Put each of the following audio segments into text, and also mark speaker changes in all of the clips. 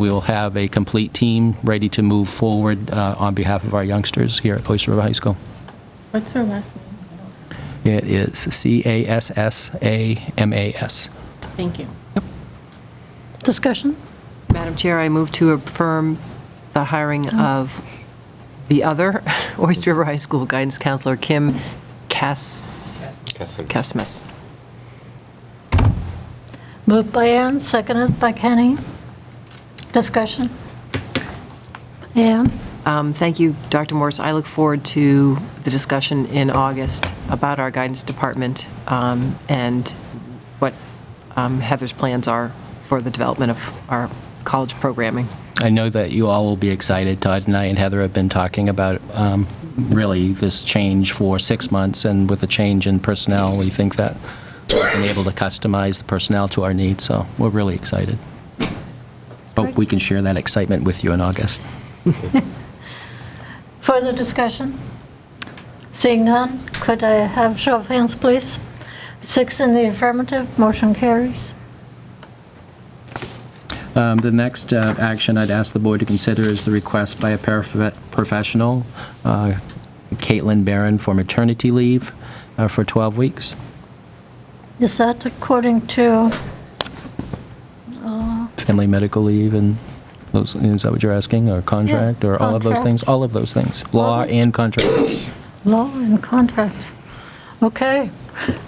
Speaker 1: We will have a complete team ready to move forward uh, on behalf of our youngsters here at Oyster River High School.
Speaker 2: What's her last name?
Speaker 1: It is C-A-S-S-A-M-A-S.
Speaker 2: Thank you.
Speaker 3: Discussion?
Speaker 4: Madam Chair, I move to affirm the hiring of the other Oyster River High School guidance counselor, Kim Cas...
Speaker 5: Casmus.
Speaker 4: Casmus.
Speaker 3: Moved by Ann, seconded by Kenny. Discussion? Ann?
Speaker 4: Um, Thank you, Dr. Morse. I look forward to the discussion in August about our guidance department um, and what um, Heather's plans are for the development of our college programming.
Speaker 1: I know that you all will be excited. Todd and I and Heather have been talking about um, really this change for six months, and with a change in personnel, we think that we've been able to customize the personnel to our needs, so we're really excited. Hope we can share that excitement with you in August.
Speaker 3: Further discussion? Seeing none, could I have show of hands, please? Six in the affirmative, motion carries.
Speaker 1: Um, The next uh, action I'd ask the board to consider is the request by a paraprof- professional, uh, Caitlin Barron, for maternity leave uh, for 12 weeks.
Speaker 3: Is that according to,
Speaker 1: family medical leave and those, is that what you're asking, or contract, or all of those
Speaker 3: contract.
Speaker 1: things? All of those things, law
Speaker 3: Contract.
Speaker 1: and contract.
Speaker 3: law and contract? Okay.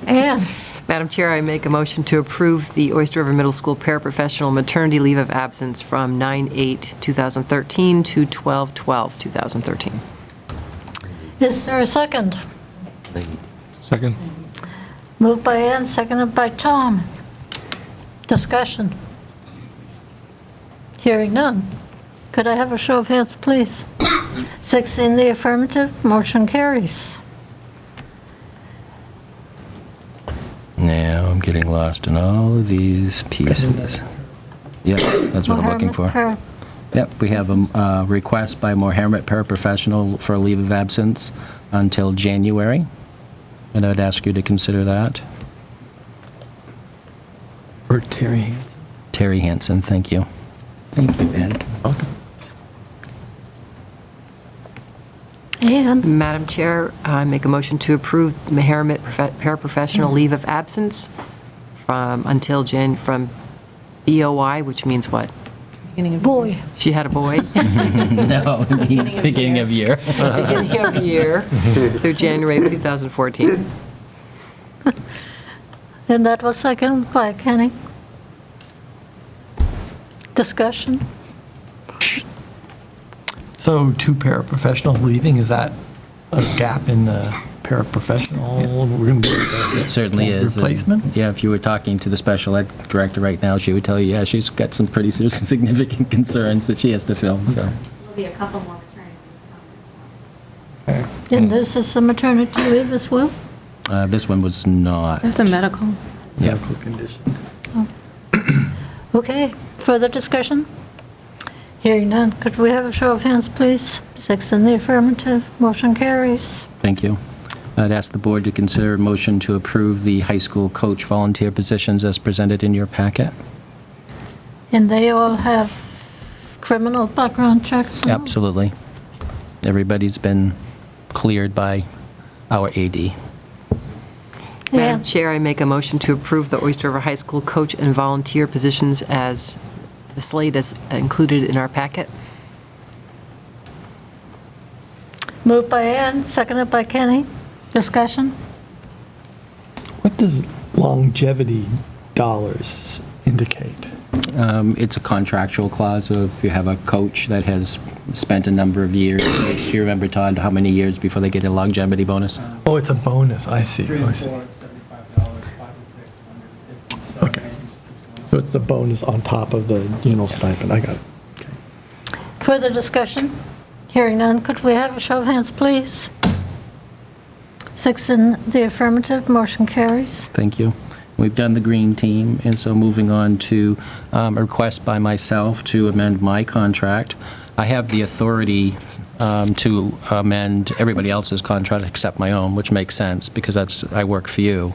Speaker 3: Ann?
Speaker 4: Madam Chair, I make a motion to approve the Oyster River Middle School paraprofessional maternity leave of absence from 9/8/2013 to 12/12/2013.
Speaker 3: Is there a second?
Speaker 6: Second.
Speaker 3: Moved by Ann, seconded by Tom. Discussion. Hearing none. Could I have a show of hands, please? Six in the affirmative, motion carries.
Speaker 1: Now, I'm getting lost in all of these pieces. Yeah, that's what I'm looking for.
Speaker 3: Mohammed
Speaker 1: Yep, we have a um, uh, request by Mohammed paraprofessional for a leave of absence until January, and I'd ask you to consider that.
Speaker 7: Or Terry Hansen.
Speaker 1: Terry Hanson, thank you. Thank you, Ed.
Speaker 3: Per. And
Speaker 4: Madam Chair, I make a motion to approve the Meharmet profe- paraprofessional leave of absence from, until Jan, from BOI, which means what?
Speaker 3: boy,
Speaker 4: She had a boy,
Speaker 1: No, it means beginning of year.
Speaker 4: beginning of year, through January of 2014.
Speaker 3: and that was seconded by Kenny. Discussion.
Speaker 7: So two paraprofessionals leaving, is that a gap in the paraprofessional? We're going to
Speaker 1: It certainly is. and,
Speaker 7: Replacement?
Speaker 1: Yeah, if you were talking to the special ed director right now, she would tell you, yeah, she's got some pretty ser- significant concerns that she has to fill, so.
Speaker 8: There'll be a couple more maternity leaves coming as well.
Speaker 1: Hmm.
Speaker 3: And this is the maternity leave as well?
Speaker 1: Uh, This one was not.
Speaker 2: That's a medical.
Speaker 1: Yeah.
Speaker 7: medical condition.
Speaker 3: Okay, further discussion? Hearing none, could we have a show of hands, please? Six in the affirmative, motion carries.
Speaker 1: Thank you. I'd ask the board to consider a motion to approve the high school coach volunteer positions as presented in your packet.
Speaker 3: And they all have criminal background checks? and all?
Speaker 1: Absolutely. Everybody's been cleared by our AD.
Speaker 4: Madam
Speaker 3: Yeah,
Speaker 4: Chair, I make a motion to approve the Oyster River High School coach and volunteer positions as, the slate is included in our packet.
Speaker 3: moved by Ann, seconded by Kenny. Discussion?
Speaker 7: What does longevity dollars indicate?
Speaker 1: Um, It's a contractual clause of you have a coach that has spent a number of years. Do you remember, Todd, how many years before they get a longevity bonus?
Speaker 7: Oh, it's a bonus, I see.
Speaker 9: Three
Speaker 7: I
Speaker 9: and
Speaker 7: see.
Speaker 9: four, seventy-five dollars, five and six, hundred and fifty. So
Speaker 7: Okay.
Speaker 9: maybe just keeps
Speaker 7: So
Speaker 9: going.
Speaker 7: it's the bonus on top of the union stipend, I got it.
Speaker 3: Further discussion? Hearing none, could we have a show of hands, please? Six in the affirmative, motion carries.
Speaker 1: Thank you. We've done the green team, and so moving on to um, a request by myself to amend my contract. I have the authority um, to amend everybody else's contract except my own, which makes sense, because that's, I work for you.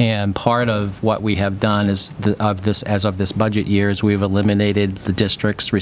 Speaker 1: And part of what we have done is, the- of this, as of this budget year, is we've eliminated the district's